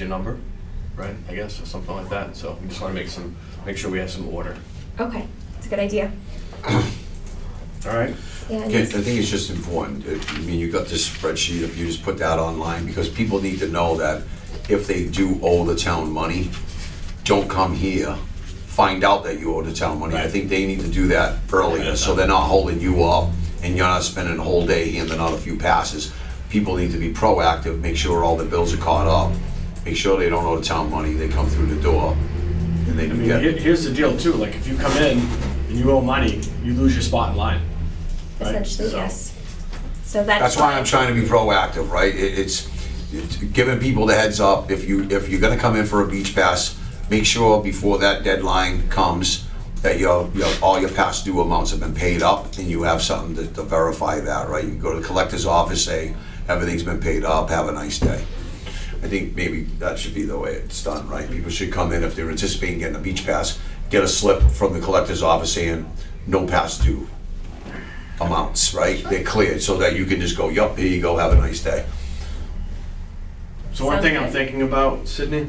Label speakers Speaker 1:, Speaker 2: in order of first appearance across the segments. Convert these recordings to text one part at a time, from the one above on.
Speaker 1: your number, right, I guess, or something like that, so we just wanna make some, make sure we have some order,
Speaker 2: Okay, it's a good idea.
Speaker 1: all right?
Speaker 2: Yeah, and
Speaker 3: Okay, I
Speaker 2: it's-
Speaker 3: think it's just important, It- I mean, you got this spreadsheet, if you just put that online, because people need to know that if they do owe the town money, don't come here, find out that you owe the town money. I
Speaker 1: Right.
Speaker 3: think they need to do that earlier, so they're not holding you up, and you're not spending a whole day handing out a few passes. People need to be proactive, make sure all the bills are caught up, make sure they don't owe the town money, they come through the door, and they
Speaker 1: I
Speaker 3: can
Speaker 1: mean, here-
Speaker 3: get,
Speaker 1: here's the deal too, like, if you come in and you owe money, you lose your spot in line. right?
Speaker 2: Essentially,
Speaker 1: So-
Speaker 2: yes. So that's.
Speaker 3: That's why I'm trying to be proactive, right? It, it's, it's giving people the heads up. If you if you're gonna come in for a beach pass, make sure before that deadline comes that your, your all your past due amounts have been paid up, and you have something to, to verify that, right? You can go to the collector's office, say everything's been paid up. Have a nice day. I think maybe that should be the way it's done, right? People should come in if they're anticipating getting a beach pass, get a slip from the collector's office saying no past due amounts, right? They're cleared so that you can just go, yup, here you go, have a nice day.
Speaker 1: So one thing I'm
Speaker 2: Sounds good.
Speaker 1: thinking about, Sydney,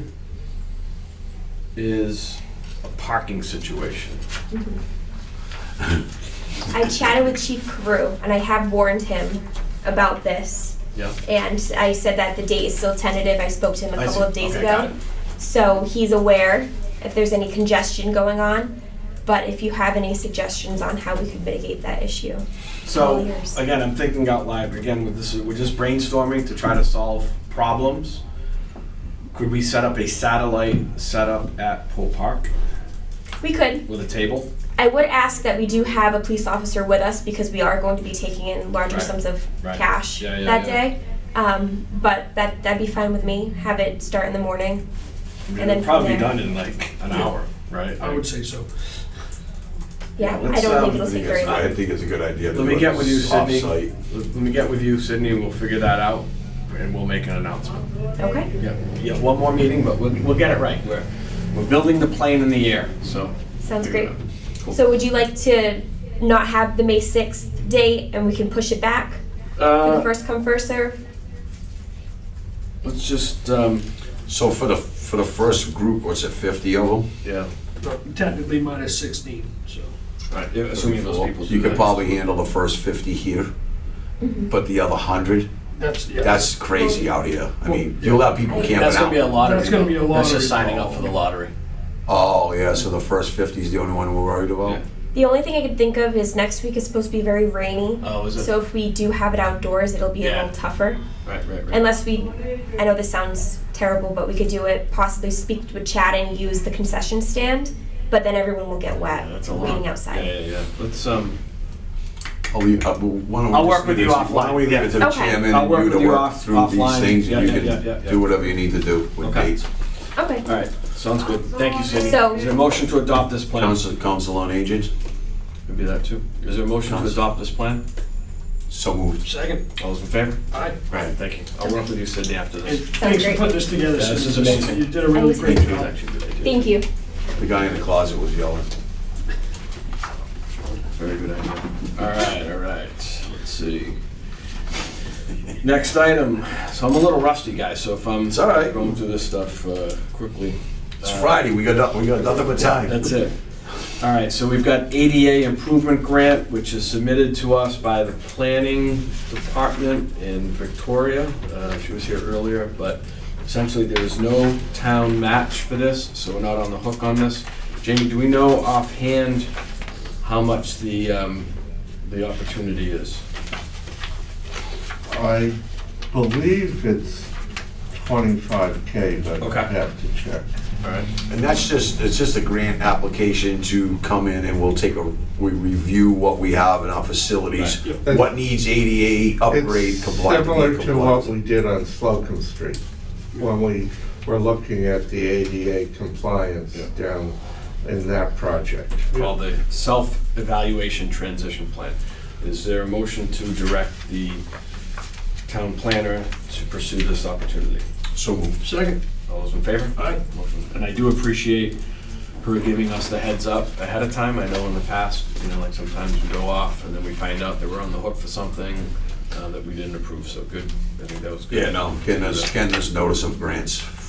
Speaker 1: is a parking situation.
Speaker 2: I chatted with Chief Carew, and I have warned him about this.
Speaker 1: Yeah.
Speaker 2: And I said that the date is still tentative. I spoke to him a
Speaker 1: I
Speaker 2: couple
Speaker 1: see.
Speaker 2: of days
Speaker 1: Okay, got
Speaker 2: ago. So he's aware if there's any congestion going on. But if you have any suggestions on how we could mitigate that issue. All
Speaker 1: So,
Speaker 2: ears.
Speaker 1: again, I'm thinking out loud, again, with this, we're just brainstorming to try to solve problems. Could we set up a satellite setup at Pool Park
Speaker 2: We could.
Speaker 1: with a table?
Speaker 2: I would ask that we do have a police officer with us because we are going to be taking in larger
Speaker 1: Right.
Speaker 2: sums of
Speaker 1: Right.
Speaker 2: cash
Speaker 1: Yeah, yeah,
Speaker 2: that
Speaker 1: yeah.
Speaker 2: day. Um, but that that'd be fine with me. Have it start in the morning.
Speaker 1: I mean,
Speaker 2: And then
Speaker 1: it'll probably be
Speaker 2: from there-
Speaker 1: done in like an hour, right?
Speaker 4: I would say so.
Speaker 2: Yeah,
Speaker 1: Yeah,
Speaker 2: I don't
Speaker 1: let's,
Speaker 2: think
Speaker 1: um,
Speaker 2: it'll take very long.
Speaker 3: think it's a good idea.
Speaker 1: Let me get with you, Sydney. Let me get with you, Sydney, and we'll figure that out, and we'll make an announcement.
Speaker 2: Okay.
Speaker 1: Yeah, yeah, one more meeting, but we'll, we'll get it right. We're, we're building the plane in the air, so.
Speaker 2: Sounds
Speaker 1: figure it
Speaker 2: great.
Speaker 1: out. Cool.
Speaker 2: So would you like to not have the May sixth date and we can push it back for the
Speaker 1: Uh,
Speaker 2: first come first serve?
Speaker 1: let's just, um,
Speaker 3: So for the, for the first group, what's it, fifty of them?
Speaker 1: yeah,
Speaker 4: Technically minus 16, so.
Speaker 1: right, yeah, assuming those people do
Speaker 3: You could
Speaker 1: that.
Speaker 3: probably handle the first fifty here, but the other hundred,
Speaker 4: That's, yeah.
Speaker 3: that's crazy out here. I mean, you'll have people camping out.
Speaker 1: That's gonna be a lottery.
Speaker 4: That's gonna be a
Speaker 1: though. That's just
Speaker 4: lottery.
Speaker 1: signing up for the lottery.
Speaker 3: Oh, yeah, so the first fifty is the only one we're worried about?
Speaker 1: Yeah.
Speaker 2: The only thing I could think of is next week is supposed to be very rainy.
Speaker 1: Oh, is it?
Speaker 2: So if we do have it outdoors, it'll be a
Speaker 1: Yeah.
Speaker 2: little tougher.
Speaker 1: Right, right, right.
Speaker 2: Unless we, I know this sounds terrible, but we could do it, possibly speak with Chad and use the concession stand, but then everyone will get wet
Speaker 1: Yeah, that's a lot.
Speaker 2: waiting
Speaker 1: Yeah,
Speaker 2: outside.
Speaker 1: yeah, yeah. Let's, um,
Speaker 3: I'll leave, uh, well, why don't we
Speaker 1: I'll
Speaker 3: just
Speaker 1: work with
Speaker 3: leave
Speaker 1: you
Speaker 3: it to- Why don't we leave it to the
Speaker 2: Okay.
Speaker 3: chairman
Speaker 1: I'll
Speaker 3: and
Speaker 1: work
Speaker 3: you to
Speaker 1: with you
Speaker 3: work
Speaker 1: off-
Speaker 3: through these
Speaker 1: offline.
Speaker 3: things? and
Speaker 1: Yeah,
Speaker 3: You
Speaker 1: yeah, yeah,
Speaker 3: can
Speaker 1: yeah, yeah.
Speaker 3: do whatever you need to do with
Speaker 1: Okay.
Speaker 3: dates.
Speaker 2: Okay,
Speaker 1: all right, sounds good. Thank you, Sydney.
Speaker 2: So-
Speaker 1: Is there a motion to adopt this plan?
Speaker 3: Council, Council on Agents,
Speaker 1: Could be that too. Is there a motion to
Speaker 3: Council.
Speaker 1: adopt this plan?
Speaker 3: so moved.
Speaker 4: Second,
Speaker 1: All those in favor?
Speaker 4: I,
Speaker 1: Right, thank you. I'll work with you, Sydney, after
Speaker 4: and
Speaker 1: this.
Speaker 4: thanks for
Speaker 2: great.
Speaker 4: putting this together.
Speaker 1: Yeah, this
Speaker 4: Susan.
Speaker 1: is amazing.
Speaker 4: You did a really
Speaker 2: Thank
Speaker 4: great
Speaker 1: It was
Speaker 4: job.
Speaker 1: actually a good idea.
Speaker 2: thank you.
Speaker 3: The guy in the closet was yelling.
Speaker 1: Very good idea. All right, all right. Let's see. Next item. So I'm a little rusty, guys. So if I'm
Speaker 3: It's all right.
Speaker 1: going through this stuff uh, quickly,
Speaker 3: It's Friday, we got, no- we got nothing but time.
Speaker 1: Uh, that's it. All right. So we've got ADA improvement grant, which is submitted to us by the planning department in Victoria. Uh, she was here earlier, but essentially there is no town match for this, so we're not on the hook on this. Jamie, do we know offhand how much the um, the opportunity is?
Speaker 5: I believe it's twenty-five K, but
Speaker 1: Okay.
Speaker 5: I have to check.
Speaker 1: All right.
Speaker 3: And that's just, it's just a grant application to come in and we'll take a, we review what we have in our facilities,
Speaker 4: Right.
Speaker 5: Yep.
Speaker 3: what needs ADA upgrade
Speaker 5: It's
Speaker 3: compliant. to be
Speaker 5: Similar to what
Speaker 3: compliant.
Speaker 5: we did on Slocum Street, when we were looking at the ADA compliance down in that project.
Speaker 1: Called the self-evaluation transition plan. Is there a motion to direct the town planner to pursue this opportunity?
Speaker 3: So moved.
Speaker 4: Second,
Speaker 1: All those in favor?
Speaker 4: Aye.
Speaker 1: Motion- And I do appreciate her giving us the heads up ahead of time. I know in the past, you know, like sometimes we go off and then we find out that we're on the hook for something uh, that we didn't approve, so good. I think that was good.
Speaker 3: Yeah, no, Ken, there's, Ken, there's notice of grants